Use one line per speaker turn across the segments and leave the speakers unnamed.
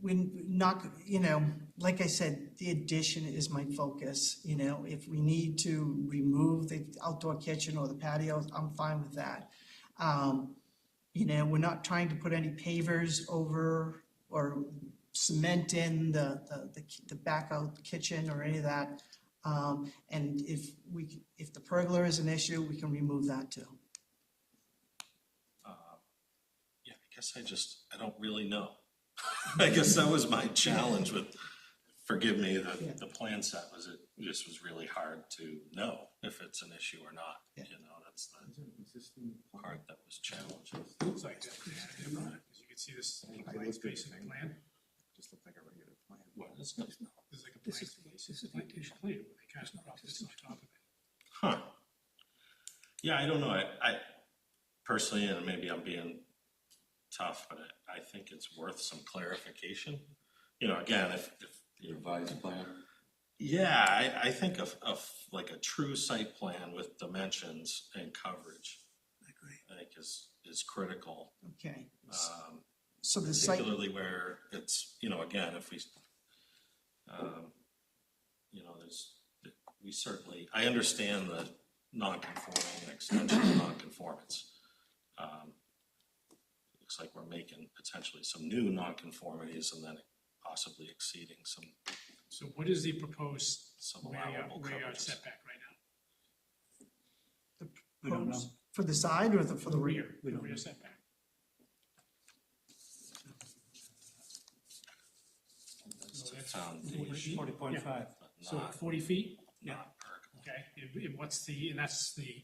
we're not, you know, like I said, the addition is my focus, you know, if we need to remove the outdoor kitchen or the patio, I'm fine with that. Um, you know, we're not trying to put any pavers over or cement in the, the- the, ki- the back out kitchen or any of that. Um, and if we, c- if the pergola is an issue, we can remove that too.
Um, Yeah, I guess I just, I don't really know. I guess that was my challenge with, forgive me,
Yeah.
the, the plan set was it, just was really hard to know if it's an issue or not.
Yeah.
You know, that's the
Is it an existing
part that was challenging.
Looks like that, yeah, yeah, right. As you can see, this is a blank space in the plan. Just looked like a regular plan.
What is it?
This is like a blank space. This is like this plan, where they kind of dropped this on top of it.
Huh. Yeah, I don't know. I, I personally, and maybe I'm being tough, but I, I think it's worth some clarification. You know, again, if, if, you know,
revised plan.
Yeah, I, I think of, of like a true site plan with dimensions and coverage,
Agree.
I think is, is critical.
Okay,
Um,
so the site,
particularly where it's, you know, again, if we, um, you know, there's, we certainly, I understand the non-conforming and extension of non-conformance. Um, Looks like we're making potentially some new non-conformities and then possibly exceeding some,
So what is the proposed
some
rear yard,
allowable
rear yard
coverages.
setback right now?
We don't know.
for the side or the, for the rear?
We
The
don't
rear
know.
setback.
That's
So
the
that's
foundation,
um, Forty point five.
but
So
not,
forty feet,
not pergola.
okay, and, and what's the, and that's the,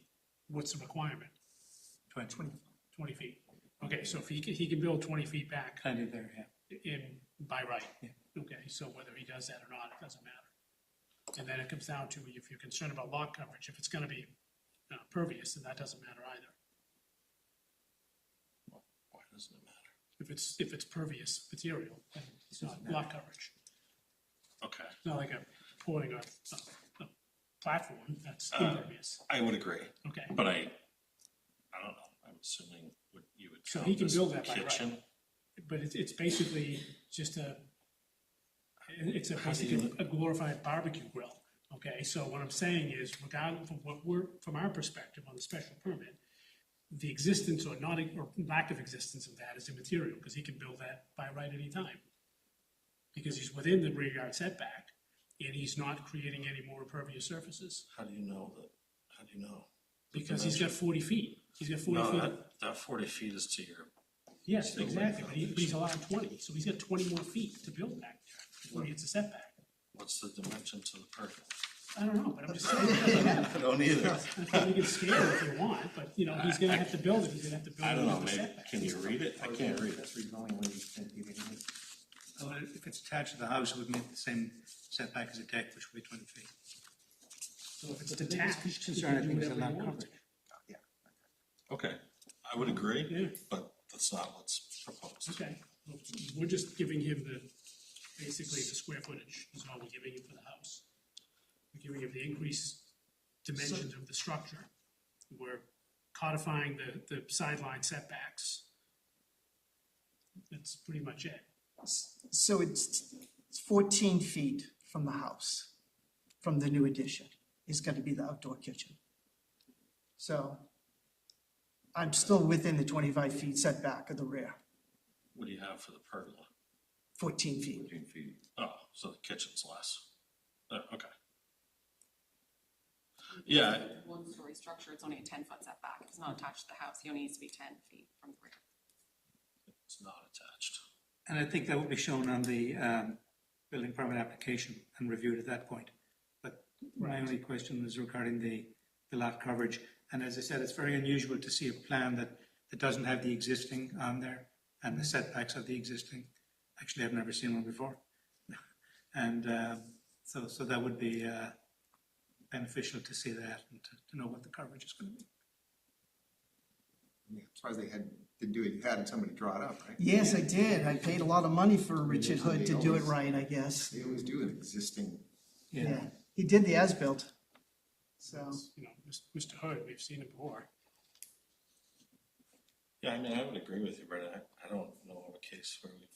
what's the requirement?
Twenty.
Twenty feet. Okay, so if he can, he can build twenty feet back
Kind of there, yeah.
in, by right.
Yeah.
Okay, so whether he does that or not, it doesn't matter. And then it comes down to if you're concerned about lot coverage, if it's gonna be uh, pervious, then that doesn't matter either.
Why doesn't it matter?
If it's, if it's pervious material, then it's not lot coverage.
Okay,
It's not like a pouring a, a- a platform that's
Uh,
impervious,
I would agree,
okay.
but I, I don't know, I'm assuming what you would.
So
count
he can
this
build that by right.
kitchen.
But it's, it's basically just a, it- it's a
How do you-
basically a glorified barbecue grill, okay? So what I'm saying is regardless of what we're, from our perspective on the special permit, the existence or not, or lack of existence of that is immaterial, because he can build that by right any time. Because he's within the rear yard setback, and he's not creating any more impervious surfaces,
How do you know that, how do you know?
because he's got forty feet, he's got forty
No,
feet.
that, that forty feet is to your,
Yes,
Still
exactly, but he-
foundation.
but he's allowed twenty, so he's got twenty more feet to build back there, before he gets a setback.
what's the dimension to the pergola?
I don't know, but I'm just saying, it doesn't
I
matter.
don't either.
I think you can scale it if you want, but, you know, he's gonna have to build it, he's gonna have to build
I
it
don't know,
with the
maybe,
setback.
can you read it? I can't read it.
That's the only way you can do it. So if it's attached to the house, it would meet the same setback as a deck, which would be twenty feet.
So if it's
But the biggest
detached, you
concern, I
can do
think, is
whatever you
the lot
want.
coverage.
to.
Okay, I would agree,
Yeah,
but that's not what's proposed.
okay, Well, we're just giving him the, basically the square footage is all we're giving him for the house. We're giving him the increased dimensions of the structure. We're codifying the, the sideline setbacks. That's pretty much it.
So it's it's fourteen feet from the house, from the new addition, is gonna be the outdoor kitchen. So I'm still within the twenty-five feet setback of the rear,
What do you have for the pergola?
fourteen feet.
Fourteen feet.
Oh, so the kitchen's less. Uh, okay. Yeah,
One-story structure, it's only a ten-foot setback, it's not attached to the house, he only needs to be ten feet from the rear.
it's not attached.
And I think that will be shown on the um, building permit application and reviewed at that point. But my only question was regarding the, the lot coverage. And as I said, it's very unusual to see a plan that, that doesn't have the existing on there and the setbacks of the existing. Actually, I've never seen one before. And um, so, so that would be uh, beneficial to see that and to- to know what the coverage is going to be.
Yeah, As far as they had, didn't do it, you had somebody draw it up, right?
Yes, I did. I paid a lot of money for Richard Hood to do it right, I guess.
They always do an existing,
Yeah, he did the as-built. So,
You know, Mis- Mr. Hood, we've seen him before.
Yeah, I mean, I would agree with you, Brett. I, I don't know of a case where we've